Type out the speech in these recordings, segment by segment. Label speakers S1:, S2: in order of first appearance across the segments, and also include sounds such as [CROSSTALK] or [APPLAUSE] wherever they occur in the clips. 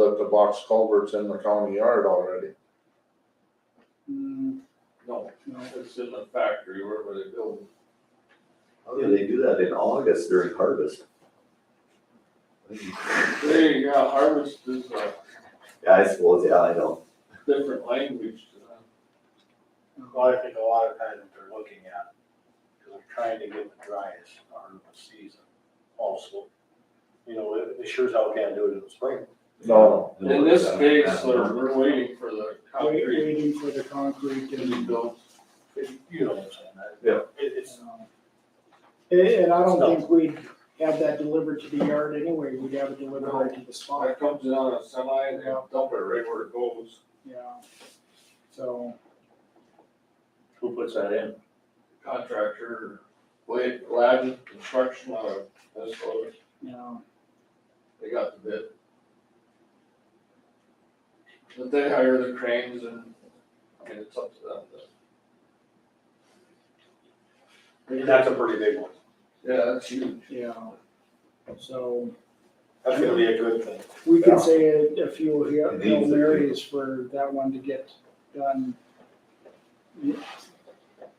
S1: that the box culvert's in the county yard already.
S2: Mm,
S3: No,
S2: no.
S3: it's in the factory, wherever they build.
S4: How do Oh, they do that in August during harvest?
S3: They, yeah, harvest is a
S4: Yeah, I suppose, yeah, I know.
S3: different language to them.
S5: Well, I think a lot of times what they're looking at, because they're trying to get the driest part of the season also. You know, it, it sure's hell can't do it in the spring.
S1: No,
S3: In this case, they're, we're waiting for the
S2: Wait-
S3: concrete
S2: Waiting for the concrete
S3: to
S2: and,
S3: be built.
S5: It- You know what I'm saying? I-
S4: Yeah.
S5: It, it's,
S2: um, and, and I don't
S5: No.
S2: think we'd have that delivered to the yard anyway, we'd have it delivered right to the spot,
S3: It comes in on a semi and they dump it right where it goes.
S2: yeah. So,
S5: who puts that in?
S3: Contractor, Wade, Ladden Construction out of Minnesota,
S2: you know,
S3: they got the bid. But they hire the cranes and, and it's up to them. to-
S5: And that's a pretty big one.
S3: Yeah, that's huge.
S2: yeah. So,
S5: That's gonna be a good thing.
S2: we
S4: Yeah.
S2: could say a, a few Hail
S4: It
S2: Hail
S4: needs to be.
S2: Marys for that one to get done.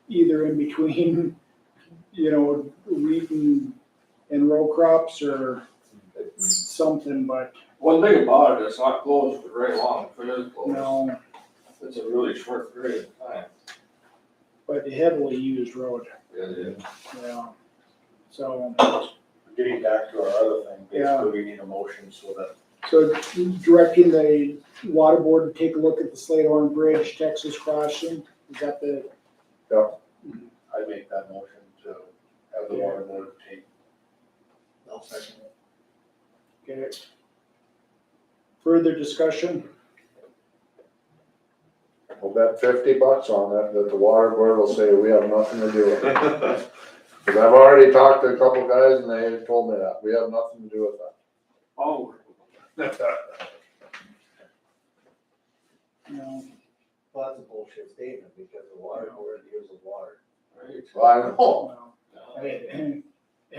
S2: Either in between, [LAUGHS] you know, wheat and, and row crops or something, but
S3: One thing about it, it's not closed for very long, if it is closed,
S2: no,
S3: it's a really short period of time.
S2: but heavily used road,
S3: It
S2: yeah. So,
S5: Getting back to our other thing,
S2: Yeah.
S5: basically we need a motion so that
S2: so directing the water board to take a look at the Sladehorn Bridge, Texas crossing, is that the,
S5: I make that motion to have the water board take. I'll second it.
S2: okay? Further discussion?
S1: we'll bet fifty bucks on it, that the water board will say, we have nothing to do with it.
S4: [LAUGHS]
S1: Cause I've already talked to a couple guys and they told me that, we have nothing to do with that.
S3: Oh,
S2: No,
S4: Well, that's a bullshit statement because the water board deals with water.
S3: right.
S1: Well, I know,
S2: no.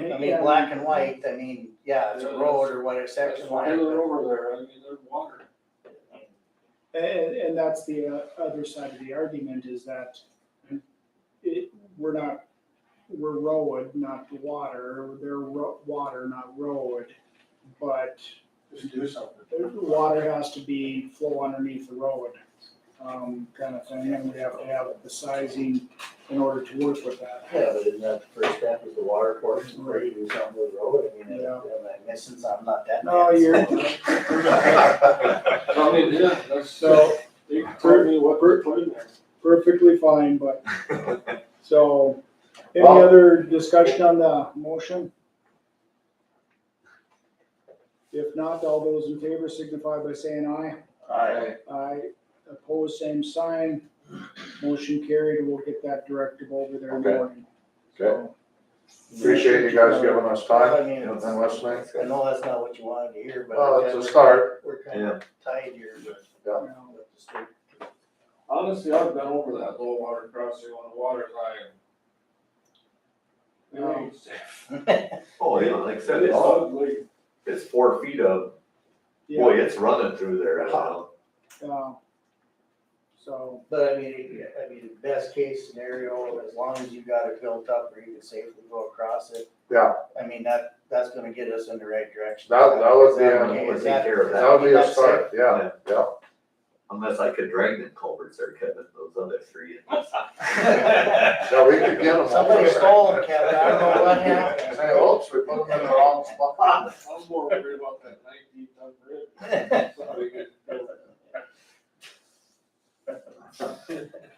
S2: I
S6: I mean, black and white, I mean, yeah, it's a road or whatever,
S3: That's
S6: section
S3: why
S6: line.
S3: they're
S6: but-
S3: over there, I mean, there's
S2: [LAUGHS]
S3: water.
S2: And, and that's the uh, other side of the argument is that it, we're not, we're road, not water, they're ro- water, not road. But
S5: Just do something.
S2: the water has to be flow underneath the road, um, kind of thing, and we have to have the sizing in order to work with that.
S6: Yeah, but isn't that the first step is the water portion, where you do something with the road, I mean,
S2: Yeah.
S6: am I missing something? I'm not that.
S2: No,
S6: bad.
S2: you're,
S3: I mean, yeah, that's,
S2: so
S3: they told me what they're putting there.
S2: perfectly fine, but, so, any other discussion on the motion? If not, all those in favor signify by saying aye.
S3: Alright.
S2: Aye, opposed, same sign. Motion carried, we'll get that directive over there in the
S1: Okay.
S2: morning.
S1: okay,
S2: So,
S1: appreciate you guys giving us
S6: I
S1: time
S6: mean,
S1: and
S6: it's-
S1: listening.
S6: I know that's not what you wanted to hear, but.
S1: Well, it's a start.
S6: We're kind of tied here, but.
S2: you know,
S6: with the state.
S3: Honestly, I've been over that low water crossing on the water line. It ain't safe.
S6: [LAUGHS]
S4: Oh, yeah, like I said,
S3: It's
S4: it's,
S3: ugly.
S4: it's four feet of, boy,
S2: Yeah,
S4: it's running through there, I know.
S2: uh, So,
S6: But I mean, I mean, best case scenario, as long as you got it built up where you can safely go across it.
S1: Yeah.
S6: I mean, that, that's gonna get us in the right direction.
S1: That- that would be
S6: Is
S1: a-
S6: okay?
S4: would
S6: Is
S4: take care of that.
S1: That'll be a
S6: that's safe?
S1: start, yeah, yeah.
S4: Unless I could drag them culverts or cut in those other three.
S1: Yeah, we could get them.
S6: [LAUGHS] Somebody stole them, Kevin, I don't know what happened.
S1: Say, oops, we put them in the wrong spot.
S3: I'm more worried about that nineteen ton bridge.
S1: [LAUGHS]
S3: So we could build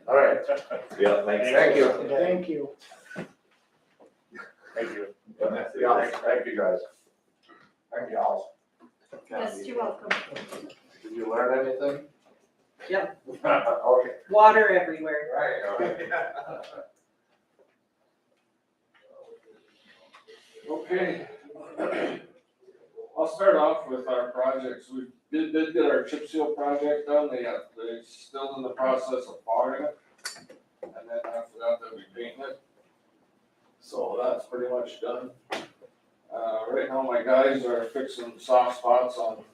S1: All right,
S4: Yeah, makes sense.
S1: thank you.
S2: thank you.
S5: Thank you.
S1: Yeah, thank you guys. Thank y'all.
S7: Yes, you're welcome.
S1: Did you learn anything?
S7: Yep.
S1: Okay.
S7: Water everywhere.
S1: Right, all right.
S3: Okay. I'll start off with our projects. We did, did get our chip seal project done. They got, they still in the process of fogging it. And then after that, they'll be painting it. So that's pretty much done. Uh, right now, my guys are fixing soft spots on